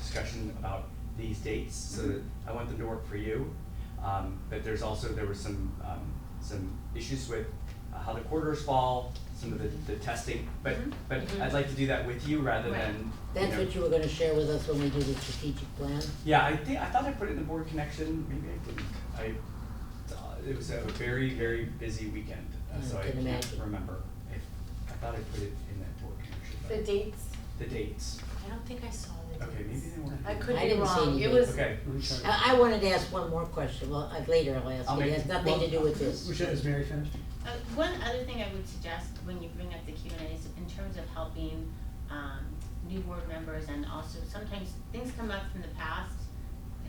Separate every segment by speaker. Speaker 1: discussion about these dates, so
Speaker 2: Mm-hmm.
Speaker 1: that I want them to work for you. Um, but there's also, there were some, um, some issues with uh, how the quarters fall, some of the, the testing, but,
Speaker 2: Mm-hmm.
Speaker 3: Mhm.
Speaker 1: but
Speaker 4: Mhm.
Speaker 1: I'd like to do that with you rather
Speaker 3: Right.
Speaker 1: than, you
Speaker 4: That's
Speaker 1: know.
Speaker 4: what you were gonna share with us when we do the strategic plan?
Speaker 1: Yeah, I think, I thought I put it in the board connection, maybe I didn't. I, uh, it was a very, very busy weekend, uh,
Speaker 4: I
Speaker 1: so I
Speaker 4: can
Speaker 1: can't
Speaker 4: imagine.
Speaker 1: remember. I, I thought I put it in that board connection,
Speaker 3: The
Speaker 1: but
Speaker 3: dates,
Speaker 1: the dates,
Speaker 3: I don't think I saw the dates.
Speaker 1: okay, maybe they weren't.
Speaker 3: I
Speaker 4: I
Speaker 3: could be
Speaker 4: didn't see
Speaker 3: wrong,
Speaker 4: any
Speaker 3: it
Speaker 4: dates.
Speaker 3: was,
Speaker 1: Okay.
Speaker 2: Mm-hmm.
Speaker 4: I, I wanted to ask one more question, well, uh, later I'll ask,
Speaker 1: I'll
Speaker 4: it
Speaker 1: make-
Speaker 4: has nothing to do with
Speaker 5: We
Speaker 4: this.
Speaker 5: should, is Mary finished?
Speaker 6: Uh, one other thing I would suggest when you bring up the Q and A's in terms of helping, um, new board members and also sometimes things come up from the past.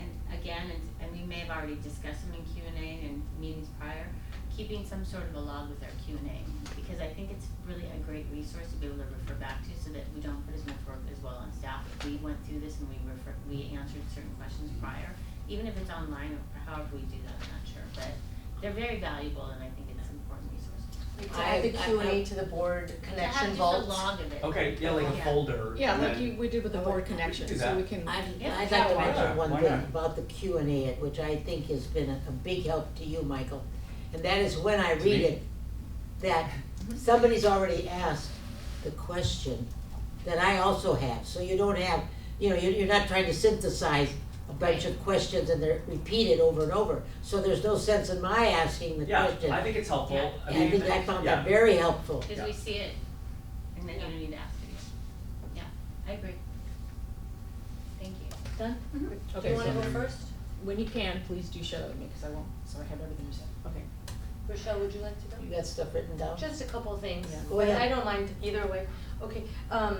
Speaker 6: And again, and, and we may have already discussed them in Q and A and meetings prior, keeping some sort of a log with our Q and A. Because I think it's really a great resource to be able to refer back to so that we don't put as much work as well on staff. If we went through this and we refer, we answered certain questions prior, even if it's online or however we do that, I'm not sure, but they're very valuable and I think it's an important resource.
Speaker 3: to add the
Speaker 4: I- I-
Speaker 3: Q and A to the board connection
Speaker 6: To have
Speaker 3: vault.
Speaker 6: just a log of it.
Speaker 1: Okay, yeah, like a
Speaker 6: Yeah.
Speaker 1: folder.
Speaker 2: Yeah,
Speaker 1: and
Speaker 2: like
Speaker 1: then-
Speaker 2: you, we did with the
Speaker 4: I
Speaker 2: board
Speaker 4: would-
Speaker 1: do
Speaker 2: connection,
Speaker 1: that.
Speaker 2: so we can.
Speaker 4: I'd,
Speaker 6: Yeah,
Speaker 4: I'd like to
Speaker 2: why
Speaker 4: mention
Speaker 1: not?
Speaker 4: one
Speaker 1: Why
Speaker 4: thing
Speaker 1: not?
Speaker 4: about the Q and A, which I think has been a, a big help to you, Michael. And that is when I
Speaker 1: To
Speaker 4: read
Speaker 1: me?
Speaker 4: it, that somebody's already asked the question that I also have. So you don't have, you know, you're, you're not trying to synthesize a bunch of questions and they're repeated over and over. So there's no sense in my asking the
Speaker 1: Yeah,
Speaker 4: question.
Speaker 1: I think it's helpful.
Speaker 6: Yeah.
Speaker 1: I
Speaker 4: And I
Speaker 1: mean,
Speaker 4: think I found
Speaker 1: yeah.
Speaker 4: that very helpful.
Speaker 6: Cause we see it and then you don't need to ask again. Yeah, I agree. Thank you. Mm-hmm.
Speaker 2: Done? Do
Speaker 5: Okay,
Speaker 2: you wanna
Speaker 5: so-
Speaker 2: go first? When you can, please do share that with me, cause I won't, so I have everything you said, okay.
Speaker 3: Rochelle, would you like to go?
Speaker 4: You got stuff written down?
Speaker 3: Just a couple of things,
Speaker 2: Yeah.
Speaker 4: Go
Speaker 3: but
Speaker 4: ahead.
Speaker 3: I don't mind either way. Okay, um,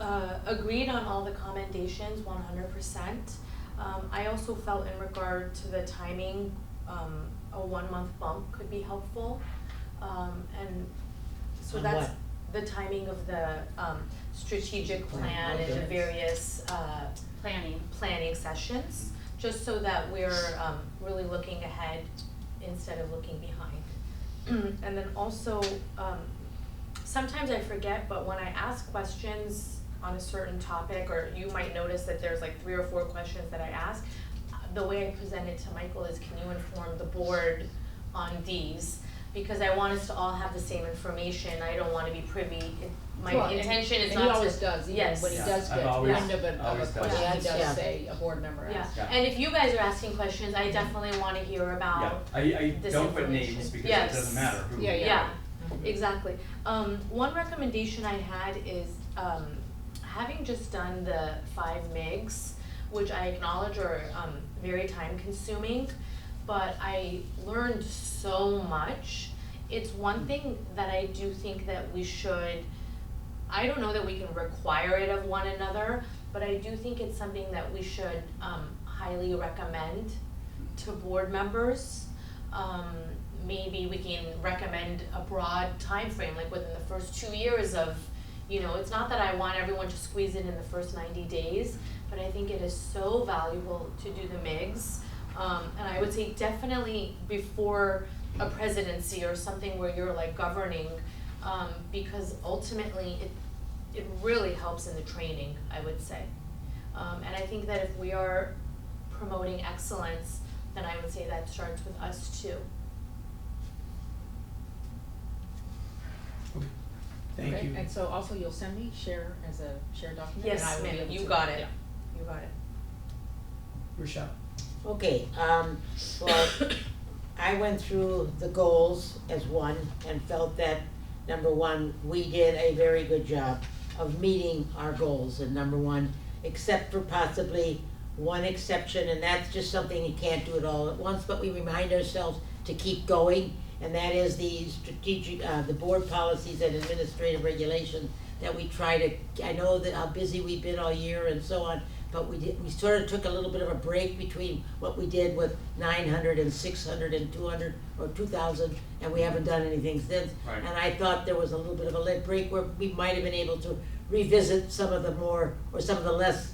Speaker 3: uh, agreed on all the commendations, one hundred percent. Um, I also felt in regard to the timing, um, a one-month bump could be helpful. Um, and so
Speaker 4: On
Speaker 3: that's the timing of the, um, strategic
Speaker 4: Plan,
Speaker 3: plan and the
Speaker 4: okay.
Speaker 3: various, uh,
Speaker 6: Planning.
Speaker 3: planning sessions, just so that we're um really looking ahead instead of looking behind. And then also, um sometimes I forget, but when I ask questions on a certain topic, or you might notice that there's like three or four questions that I ask, uh, the way I present it to Michael is can you inform the board on these? Because I want us to all have the same information, I don't wanna be privy, It-
Speaker 2: Well,
Speaker 3: my
Speaker 2: and-
Speaker 3: intention is
Speaker 2: and
Speaker 3: not
Speaker 2: he
Speaker 3: to,
Speaker 2: always does, even
Speaker 3: Yes.
Speaker 2: when he
Speaker 1: Yeah,
Speaker 2: does
Speaker 1: I've
Speaker 2: get
Speaker 1: always-
Speaker 2: wind of a, of
Speaker 1: always done.
Speaker 2: a question, he
Speaker 4: Yeah.
Speaker 2: does say, a board member
Speaker 3: Yeah,
Speaker 2: asked.
Speaker 1: Yeah.
Speaker 3: and if you guys are asking questions, I definitely wanna hear
Speaker 1: Yeah,
Speaker 3: about,
Speaker 1: I, I
Speaker 3: This
Speaker 1: don't put
Speaker 3: information.
Speaker 1: names because it
Speaker 3: Yes.
Speaker 1: doesn't matter who.
Speaker 2: Yeah,
Speaker 3: yeah,
Speaker 4: Mhm.
Speaker 3: exactly. Um, one recommendation I had is, um, having just done the five MIGs, which I acknowledge are, um, very time consuming, but I learned so much. It's one thing that I do think that we should, I don't know that we can require it of one another, but I do think it's something that we should, um, highly recommend to board members. Um, maybe we can recommend a broad time frame, like within the first two years of, you know, it's not that I want everyone to squeeze it in the first ninety days, but I think it is so valuable to do the MIGs. Um, and I would say definitely before a presidency or something where you're like governing, um, because ultimately it, it really helps in the training, I would say. Um, and I think that if we are promoting excellence, then I would say that starts with us too.
Speaker 5: Thank
Speaker 2: Okay,
Speaker 5: you.
Speaker 2: And so also you'll send me, share as a shared document, and
Speaker 3: Yes,
Speaker 2: I will be
Speaker 3: ma'am,
Speaker 2: able
Speaker 3: you
Speaker 2: to-
Speaker 3: got it.
Speaker 2: yeah.
Speaker 3: You got it.
Speaker 5: Rochelle,
Speaker 4: Okay, um, well, I went through the goals as one and felt that, number one, we did a very good job of meeting our goals and number one, except for possibly one exception, and that's just something you can't do it all at once, but we remind ourselves to keep going, and that is the strategic, uh, the board policies and administrative regulation that we try to, I know that how busy we've been all year and so on, but we did, we sort of took a little bit of a break between what we did with 900 and 600 and 200 or two thousand, and we haven't done anything since.
Speaker 1: Right.
Speaker 4: And I thought there was a little bit of a lit break where we might have been able to revisit some of the more, or some of the less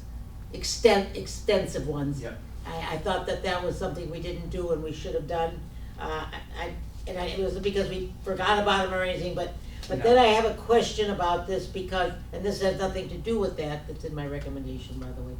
Speaker 4: extent, extensive ones.
Speaker 1: Yep.
Speaker 4: I, I thought that that was something we didn't do and we should have done. Uh, I, I- and I, it wasn't because we forgot about them or anything, but, but
Speaker 1: No.
Speaker 4: then I have a question about this because, and this has nothing to do with that, that's in my recommendation, by the way.